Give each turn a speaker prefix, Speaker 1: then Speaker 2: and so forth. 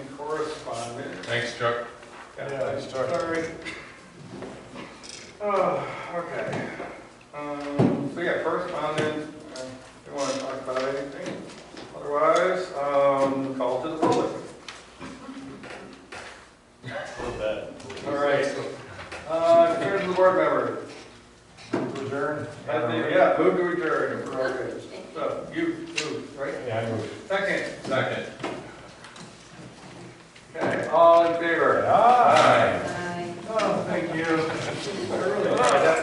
Speaker 1: Thanks, Chuck.
Speaker 2: Yeah, sorry. Oh, okay. Um, so yeah, correspondence, uh, we want to talk about anything. Otherwise, um, call to the public. All right. Uh, here's the board member.
Speaker 3: Adjourn?
Speaker 2: I think, yeah, move to adjourn. We're all good. So, you move, right?
Speaker 3: Yeah, I moved.
Speaker 2: Second.
Speaker 1: Second.
Speaker 2: Okay, all in favor?
Speaker 3: Ah!